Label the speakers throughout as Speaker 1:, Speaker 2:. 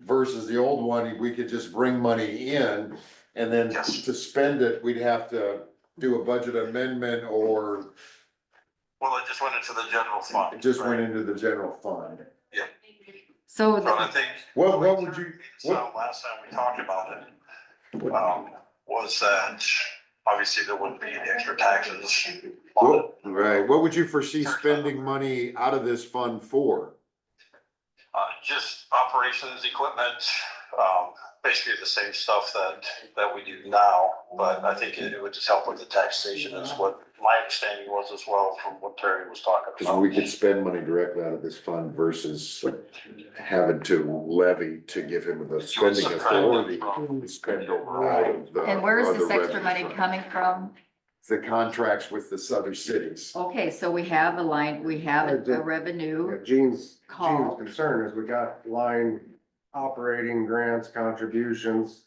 Speaker 1: versus the old one, we could just bring money in and then
Speaker 2: Yes.
Speaker 1: to spend it, we'd have to do a budget amendment or
Speaker 2: Well, it just went into the general fund.
Speaker 1: it just went
Speaker 2: right?
Speaker 1: into the general fund.
Speaker 3: So
Speaker 2: So I
Speaker 3: the-
Speaker 2: think.
Speaker 1: What, what would you,
Speaker 2: So last time we talked about it, um, was that obviously there wouldn't be any extra taxes on it.
Speaker 1: what, right, what would you foresee spending money out of this fund for?
Speaker 2: Uh, just operations, equipment, um, basically the same stuff that, that we do now. But I think it would just help with the taxation is what my understanding was as well from what Terry was talking
Speaker 1: Cause
Speaker 2: about.
Speaker 1: we could spend money directly out of this fund versus having to levy to give him the spending authority to spend over out of the.
Speaker 3: and where is this
Speaker 1: other
Speaker 3: extra money
Speaker 1: revenue.
Speaker 3: coming from?
Speaker 1: The contracts with the other cities.
Speaker 3: Okay, so we have a line, we have a- a
Speaker 4: Yeah,
Speaker 3: revenue,
Speaker 4: Gene's,
Speaker 3: Call.
Speaker 4: Gene's concern is we got line operating grants, contributions.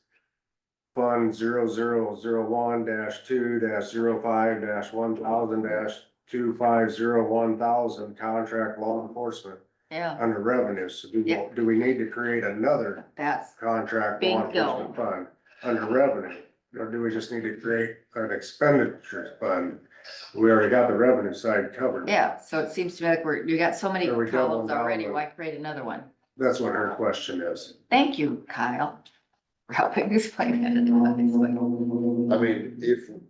Speaker 4: Fund zero zero zero one dash two dash zero five dash one thousand dash two five zero one thousand, contract law enforcement
Speaker 3: yeah,
Speaker 4: under revenues. So do, we- do we need to create another
Speaker 3: that's,
Speaker 4: contract law
Speaker 3: Bingo.
Speaker 4: enforcement fund under revenue? Or do we just need to create an expenditure fund? We already got the revenue side covered.
Speaker 3: yeah, so it seems to me like we're, you got so many
Speaker 4: There we go,
Speaker 3: columns
Speaker 4: one
Speaker 3: already,
Speaker 4: dollar.
Speaker 3: why create another one?
Speaker 4: That's what her question is.
Speaker 3: Thank you, Kyle, for helping explain that. in the way.
Speaker 1: I mean, if,
Speaker 4: I mean,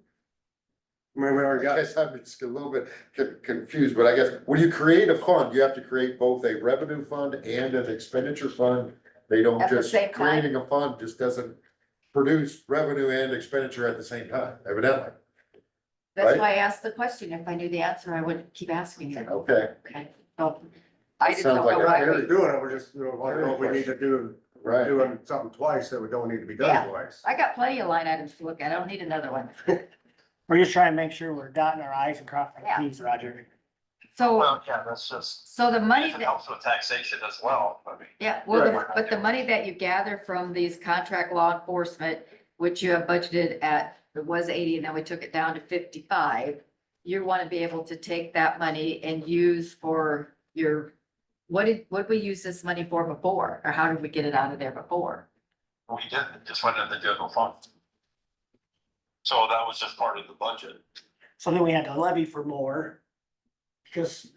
Speaker 4: we already
Speaker 1: I
Speaker 4: got
Speaker 1: guess I'm just a little bit con- confused, but I guess when you create a fund, you have to create both a revenue fund and an expenditure fund. They don't
Speaker 3: At the
Speaker 1: just,
Speaker 3: same time?
Speaker 1: creating a fund just doesn't produce revenue and expenditure at the same time, evidently.
Speaker 3: That's
Speaker 1: Right.
Speaker 3: why I asked the question. If I knew the answer, I wouldn't keep asking it,
Speaker 1: Okay,
Speaker 3: okay? So I just
Speaker 1: Sounds
Speaker 3: don't
Speaker 1: like
Speaker 3: know
Speaker 1: a
Speaker 3: why
Speaker 4: We're
Speaker 3: we,
Speaker 4: doing it, we're just, you know, I don't know if we need to do,
Speaker 1: right.
Speaker 4: doing something twice that we don't need to be
Speaker 3: Yeah.
Speaker 4: done twice.
Speaker 3: I got plenty of line items to look at. I don't need another one.
Speaker 5: We're just trying to make sure we're dotting our i's and crossing
Speaker 3: Yeah.
Speaker 5: our t's, Roger.
Speaker 3: So,
Speaker 2: Well, yeah, that's just,
Speaker 3: so the money
Speaker 2: it
Speaker 3: that.
Speaker 2: helps with taxation as well. I mean,
Speaker 3: Yeah, well, the-
Speaker 2: Right.
Speaker 3: but the money that you gather from these contract law enforcement, which you have budgeted at, it was eighty and then we took it down to fifty-five. You want to be able to take that money and use for your, what did, what we use this money for before? Or how did we get it out of there before?
Speaker 2: we didn't, it just went in the general fund. So that was just part of the budget.
Speaker 5: So then we had to levy for more. Just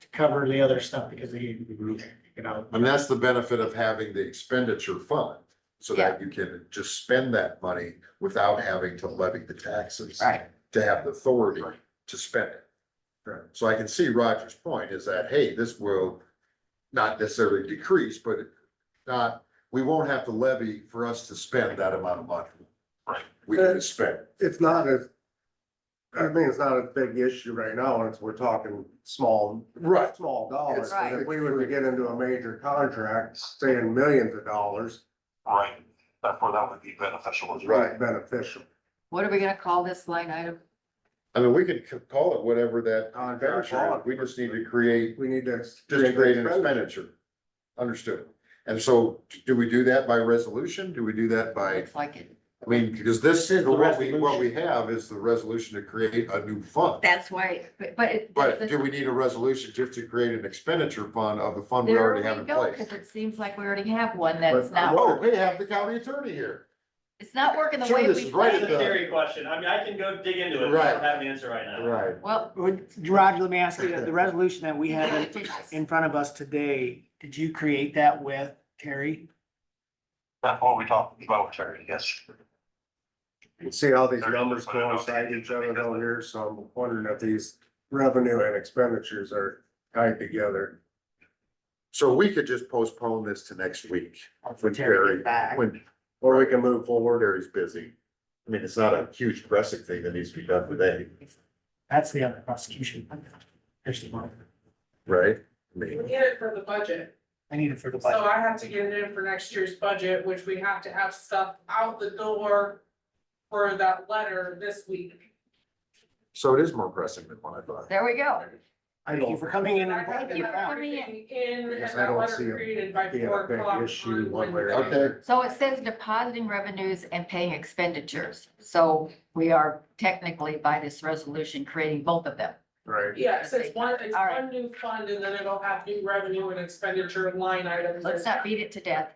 Speaker 5: to cover the other stuff because they, you know,
Speaker 1: And that's the benefit of having the expenditure fund, so that you can just spend that money without having to levy the taxes.
Speaker 3: Right.
Speaker 1: To have the authority to spend it. So I can see Roger's point is that, hey, this will not necessarily decrease, but not, we won't have to levy for us to spend that amount of money.
Speaker 2: Right.
Speaker 1: We can just spend. it.
Speaker 4: It's not as, I mean, it's not a big issue right now, and it's, we're talking small,
Speaker 1: Right.
Speaker 4: small dollars.
Speaker 3: Right.
Speaker 4: But If we were to get into a major contract, saying millions of dollars,
Speaker 2: Right, therefore that would be beneficial as well.
Speaker 1: Right.
Speaker 4: beneficial.
Speaker 3: What are we gonna call this line item?
Speaker 1: I mean, we can c- call it whatever that
Speaker 4: Contract
Speaker 1: expenditure
Speaker 4: law,
Speaker 1: is. We just need to create,
Speaker 4: we need to.
Speaker 1: just create an expenditure. Understood. And so do we do that by resolution? Do we do that by?
Speaker 3: Looks like it.
Speaker 1: I mean, because this,
Speaker 5: This is the
Speaker 1: what we, what we have is the resolution to create a new fund.
Speaker 3: That's why, but but it.
Speaker 1: But do we need a resolution just to create an expenditure fund of the fund we
Speaker 3: There
Speaker 1: already
Speaker 3: we
Speaker 1: have in
Speaker 3: go,
Speaker 1: place?
Speaker 3: Cause it seems like we already have one that's
Speaker 4: But-
Speaker 3: not,
Speaker 1: Oh, we have the county attorney here.
Speaker 3: it's not working the
Speaker 1: Sure,
Speaker 3: way
Speaker 1: this
Speaker 3: we.
Speaker 1: is right
Speaker 6: That's a
Speaker 1: at the-
Speaker 6: theory question. I mean, I can go dig into it. but I
Speaker 1: Right.
Speaker 6: don't have an answer right now.
Speaker 1: Right.
Speaker 3: Well.
Speaker 5: would, Roger, let me ask you, the resolution that we have in- in front of us today, did you create that with Terry?
Speaker 2: That's what we talked about, Terry, yes.
Speaker 4: See how these numbers coincide each other down here, so I'm wondering if these revenue and expenditures are tied together.
Speaker 1: So we could just postpone this to next week when
Speaker 5: Terry
Speaker 1: Terry,
Speaker 5: gets back.
Speaker 1: when, or we can move forward, Terry's busy. I mean, it's not a huge pressing thing that needs to be done today,
Speaker 5: That's the other prosecution. Here's the one.
Speaker 1: right? I mean,
Speaker 7: We need it for the budget,
Speaker 5: I need it for the
Speaker 7: so
Speaker 5: budget.
Speaker 7: I have to get it in for next year's budget, which we have to have stuff out the door for that letter this week.
Speaker 1: so it is more pressing than what I thought.
Speaker 3: There we go.
Speaker 5: Thank you for coming in.
Speaker 7: And I have to
Speaker 3: you
Speaker 7: have
Speaker 3: for coming in.
Speaker 7: everything in and
Speaker 4: Yes, I
Speaker 7: that
Speaker 4: don't see
Speaker 7: letter
Speaker 4: it
Speaker 7: created by
Speaker 4: being a
Speaker 7: four
Speaker 4: big
Speaker 7: o'clock
Speaker 4: issue
Speaker 7: on
Speaker 4: one way or
Speaker 7: Wednesday.
Speaker 1: another. Okay.
Speaker 3: So it says depositing revenues and paying expenditures. So we are technically by this resolution creating both of them.
Speaker 4: Right.
Speaker 7: Yes, it's one, it's
Speaker 3: All right.
Speaker 7: one new fund and then it'll have new revenue and expenditure line items.
Speaker 3: Let's not beat it to death.